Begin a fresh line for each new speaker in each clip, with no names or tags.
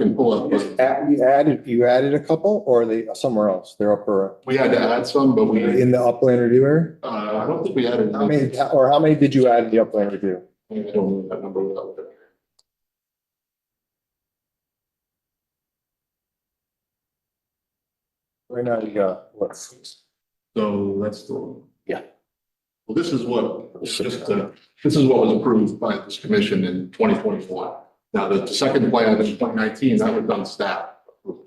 Can pull up.
Is
but
at- You added, you added a couple or they, somewhere else? They're upper,
We had to add some, but we, uh,
in the upland review area?
I don't think we added.
How many, or how many did you add in the upland review?
I don't know that number without looking.
Right now, you got, what, six?
So that's the one.
Yeah.
Well, this is what, just, uh, this is what was approved by this commission in twenty twenty-one. Now, the second plan in twenty nineteen, that was done staff. approval.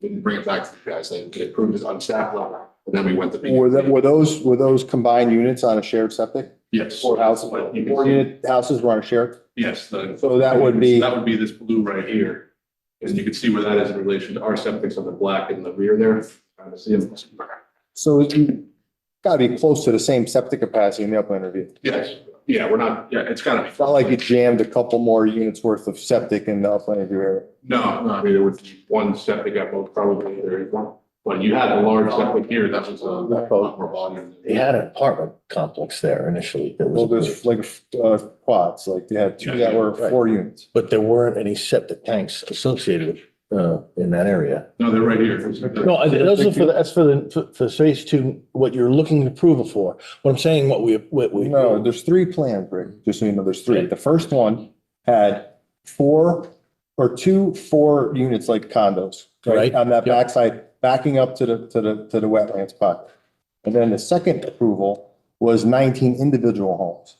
Didn't bring it back to you guys, they they approved it on staff level, and then we went to. B.
Were that, were those, were those combined units on a shared septic?
Yes.
Four houses,
But you can
four
see-
unit houses were on a shared?
Yes, the.
So that would be-
That would be this blue right here. And you can see where that is in relation to our septic's on the black in the rear there. Trying to see them.
So you gotta be close to the same septic capacity in the upland review.
Yes, yeah, we're not, yeah, it's gotta be.
It's not like you jammed a couple more units worth of septic in the upland review area.
No, no, I mean, there was one septic at most probably there is one, but you had a large septic here, that was uh, a lot more volume.
They had an apartment complex there initially. that was
Well, there's like, uh, quads, like you had two that were four units.
But there weren't any septic tanks associated uh, in that area.
No, they're right here.
No, I- those are for, the- that's for the, for- for phase two, what you're looking to prove it for. What I'm saying, what we, what we.
No, there's three plans, Rick, just so you know, there's three. The first one had four or two, four units like condos, right?
Right.
On that
Yep.
backside, backing up to the, to the, to the wetland spot. And then the second approval was nineteen individual homes.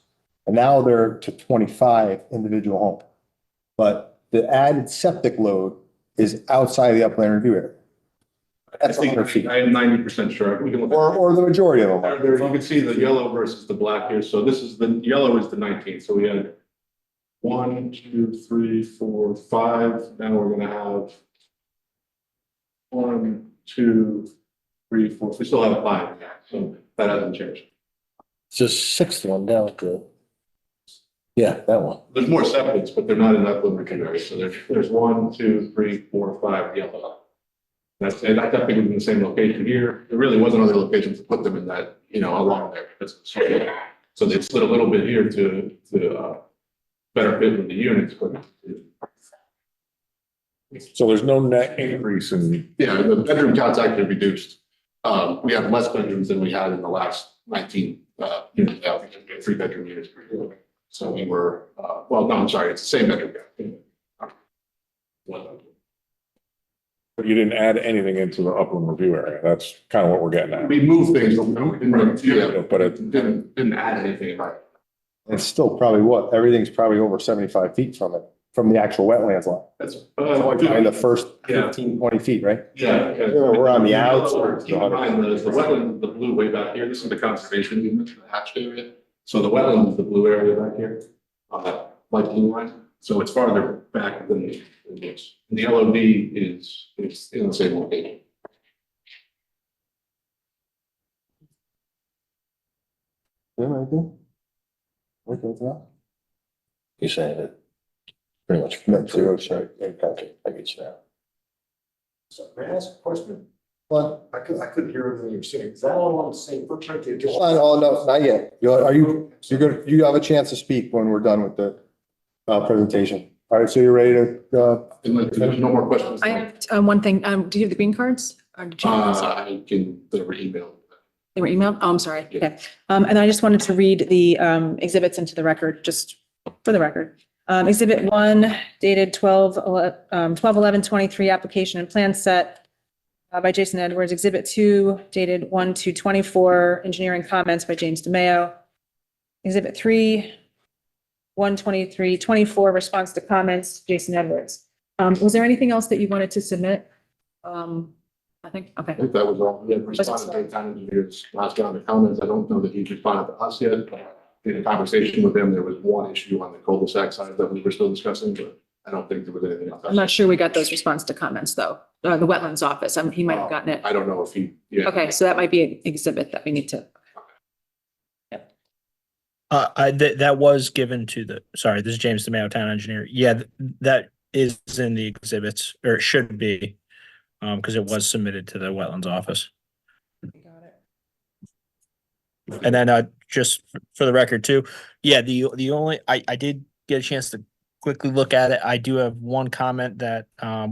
And now they're to twenty-five individual home. But the added septic load is outside the upland review area.
I
That's
think,
hundred feet,
I am ninety percent sure. We can look.
or, or the majority of them
There,
are.
there, you can see the yellow versus the black here, so this is the, yellow is the nineteenth, so we had one, two, three, four, five, now we're gonna have one, two, three, four, we still have five, so that hasn't changed.
It's the sixth one down at the. Yeah, that one.
There's more septics, but they're not in that limit area, so there's, there's one, two, three, four, five yellow. That's, and I thought they were in the same location here, there really wasn't other locations to put them in that, you know, along there, that's, so they slid a little bit here to, to, uh, better fit with the units, but.
So there's no net increase in,
Yeah, the bedroom count's actually reduced, um, we have less bedrooms than we had in the last nineteen, uh, units, I think, we had three bedroom units. per unit. So we were, uh, well, no, I'm sorry, it's the same bedroom. count. One.
but you didn't add anything into the upland review area. That's kind of what we're getting at.
We moved things, but we didn't, yeah,
But it,
didn't, didn't add anything, right?
It's still probably what, everything's probably over seventy-five feet from it, from the actual wetlands line.
That's. uh,
Probably the first
Yeah.
15, 20 feet, right?
Yeah.
We're on the outs.
Keep in mind, the, the wetland, the blue way back here, this is the conservation unit, the hatched area. So the wetland is the blue area back here, on that light blue line. So it's farther back than the, than this. And the LOD is, is in the same location.
Yeah, right there. Right there, it's not.
You're saying it. Pretty much.
Net zero, sorry.
Okay, I get you now.
So may I ask a question?
Well,
I could, I couldn't hear everything you were saying. Is that all on the same footprint? The
hold on, oh, no, not yet. You Are are you, you're gonna, you have a chance to speak when we're done with the uh, presentation. All right, so you're ready to, uh,
Unless there's no more questions.
I have um, one thing. Um, do you have the green cards? Or did you-
Uh, I can, the email.
They were emailed? Oh, I'm sorry. Okay. Um, and I just wanted to read the um, exhibits into the record, just for the record. Um, exhibit one dated 12 ele- um, 12 11 23 application and plan set uh, by Jason Edwards. Exhibit two dated one to 24 engineering comments by James DeMayo. Exhibit three, 123 24 response to comments, Jason Edwards. Um, was there anything else that you wanted to submit? Um, I think, okay.
I think that was all. We had responded to the town engineers last round of comments. I don't know that he's responded to us yet. but In a conversation with him, there was one issue on the cul-de-sac side that we were still discussing, but I don't think there was anything else.
I'm not sure we got those response to comments, though, uh, the wetlands office, um, he might have gotten it.
I don't know if he, yeah.
Okay, so that might be an exhibit that we need to,
Uh, I, that, that was given to the, sorry, this is James DeMayo, town engineer. Yeah, th- that is in the exhibits, or it should be. Um, because it was submitted to the wetlands office. And then, uh, just f- for the record too, yeah, the, the only, I, I did get a chance to quickly look at it. I do have one comment that um